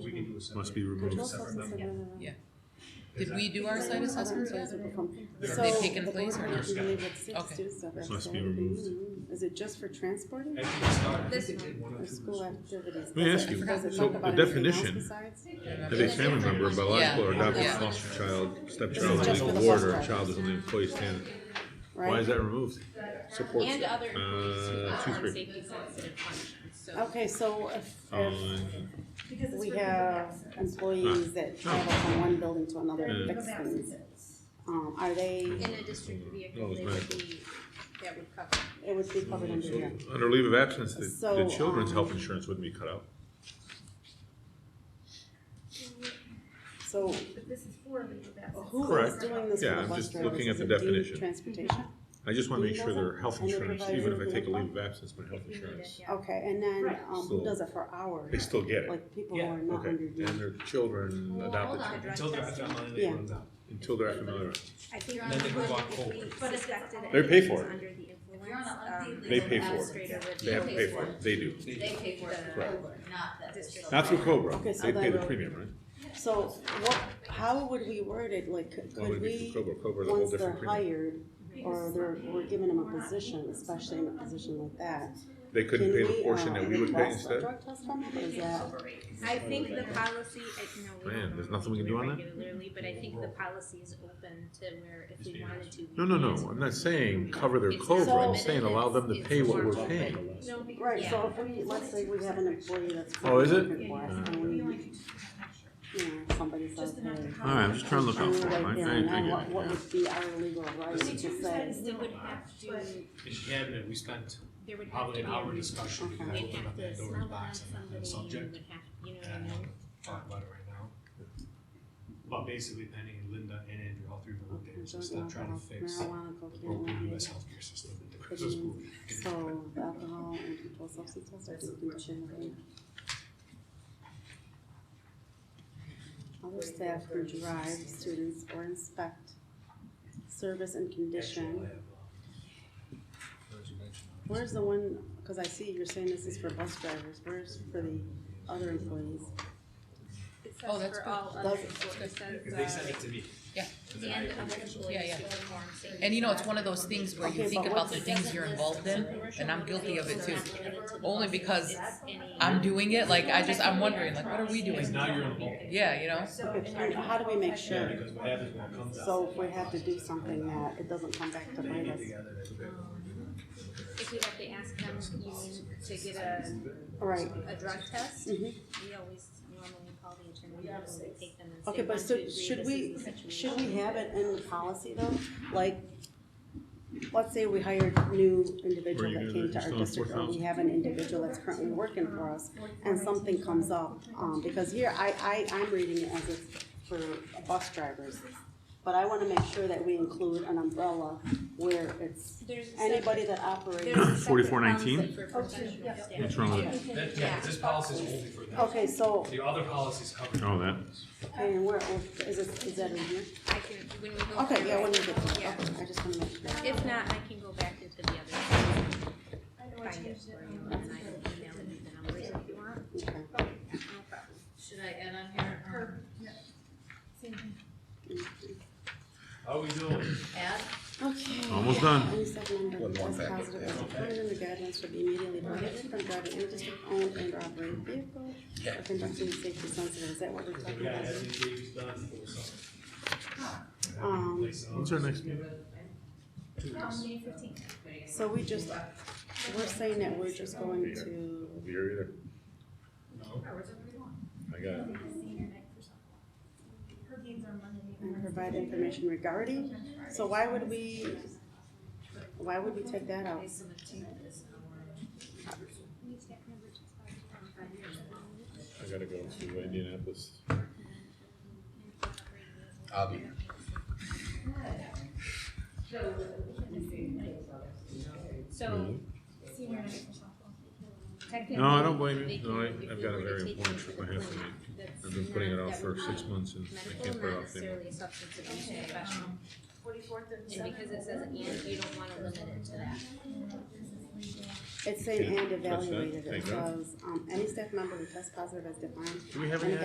was separate. must be removed. Control separate substance level. and, uh, Yeah. Did we do our site other assessments yet? advisable company. They're- So, They've taken the place or board not? has been able to Okay. do stuff Must outside. be removed. Mm. Is it just for transporting I think it's not- I This think they one. did one or or two school this activities? Let me Does ask it- you, does it so talk the about anything else definition- besides? Have a family member, biological or Yeah. adopted Yeah. foster child, This stepchild, is just for legal the ward, or a foster. child is an employee standard. Why Right? is that removed? Support. And other employees who Uh, two, perform three. safety sensitive functions, so. Okay, so if, Oh, if Fine. we have Ah. employees that travel from one building to another and fix things, um, are they, In a district No, vehicle, it's they would medical. be, that would cover. it would be covered under here? Under leave of absence, the, the So, children's health um, insurance wouldn't be cut out. So But this is for leave of absence. who is Correct. doing this for Yeah, the I'm bus just drivers? looking at Is the it deemed definition. Transportation? I just wanna make Leave sure their doesn't- health and they're insurance, provided even if I with take a leave leave of absence, my health insurance, Okay, and then, Right. um, who So- does it for hours? they still get it. Like people who are not Okay, under and you. their children, Well, adopted hold children, on. Until they're at that line, they Yeah. run out. until they're familiar. I think And then they move on if we forward. suspected They pay anyone for was it. under the influence, um, They pay for it. Administrator would They have to pay for it, they do. They- They pay for it through Correct. Cobra, not the District. Not through Cobra, Okay, so they pay then- the premium, right? So what, how would we word it? Like, could Why would could it be we, through Cobra, Cobra's a whole once they're different premium. hired, or they're, we're giving them a position, especially in a position like that? They couldn't can pay the we, portion uh, that we would pay request a instead? Drug test from them, or is that? I think the policy, I, no, we don't. Man, there's normally nothing we can it do on that? Regularly, but I think the policy is open to where if we wanted to. we No, no, could. no, I'm not saying cover their It's Cobra, I'm limited, saying allow them to it's- pay it's what more we're paying. No, because. Right, so Yeah. if we, let's say we have an employee that's. Oh, is it? working for us, and we, you know, somebody says, hey. All right, I'm just trying to look out for Right them, I, I, there I and then get what, it, what yeah. would be our legal right to say? They would have to, If you had it, we spent there would have probably to be. an a hour re- discussion, we They'd opened up have to that Pandora's stumble on box on somebody the and you subject, would have, you know what I and I mean? won't talk about it right now. But basically Penny, Linda, and Andrew, all three of them looked at it, so stop trying to fix the Marijuana, cocaine, broken opiates. US healthcare system. and the Could crisis you- group. so alcohol and controlled substance tests are deemed intimidating. Other staff who drive students or inspect service and Actually, condition. I have, um, where'd you mention that? Where's the one, cause I see you're saying this is for bus drivers, where's for the other employees? It Oh, says that's for good. all other, That's- employees. it says, Because they sent uh, it to me. Yeah. And then I And approved other it, so- employees yeah. who perform safety And you know, it's one of those sensitive things where you Okay, think but about what's the the things you're involved in, and I'm guilty of it too. functions. Only because It's any- I'm doing it, like, I just, I'm wondering, like, what are we Because doing? now you're involved. Yeah, you know? Okay, and how do we make Yeah, sure? because what happens when it comes out. So if we have to do something that it doesn't come back to They bite get us. together, they look at what we're doing. If we'd have to ask them, you mean, to get a, Right. a drug test, Mhm. we always normally call the attorney and we take them and say, Okay, but one, so two, three, should this we, is the situation. should we have it in the policy though? Like, let's say we hired a new individual Where you doing that came it? to Just our on district, or we 4,000? have an individual that's currently working for us, and something comes up, um, because here, I, I, I'm reading it as it's for bus drivers. But I wanna make sure that we include an umbrella where it's There's a anybody separate- that operates. there's a separate 4419? policy for professional staff. What's wrong with it? That, yeah, this policy is only for them. Okay, so, The other policies cover. Oh, that, and where, is it, is that in here? I can, when we go. Okay, through yeah, it, when you get to it, Yeah. okay, I just wanna make sure. If not, I can go back into the other, find it um, for you, and I can email you the numbers if you want. Okay. No problem. Should I add on here, or How we doing? add? Okay. Almost done. Any submember that tests positive as determined in the guidelines should be immediately prohibited from driving any district-owned and or operated vehicle or conducting safety sensitive, is that what we're talking Yeah, about? everything Dave's done for the summer. Um, Place when's our next meeting? um, May fifteenth. so we just, we're saying that we're just going to, Here either, No. I got it. Her games are Monday. and provide information regarding, so why would we, why would we take that out? I gotta go to Indianapolis. I'll be here. So Senior night for softball. technically. No, I don't blame you. they No, I, can- if I've you got a were to very take important it trip to I the have to clinic, make. that's I've been putting it not- off that for would six be months and I can't Medical, put not it off anymore. necessarily a substance abuse professional, Forty-fourth of and because it says and, you don't wanna limit it to that. It's saying What's and that? evaluated, it Take that. says, um, any staff member who tests positive as defined Do we have in any the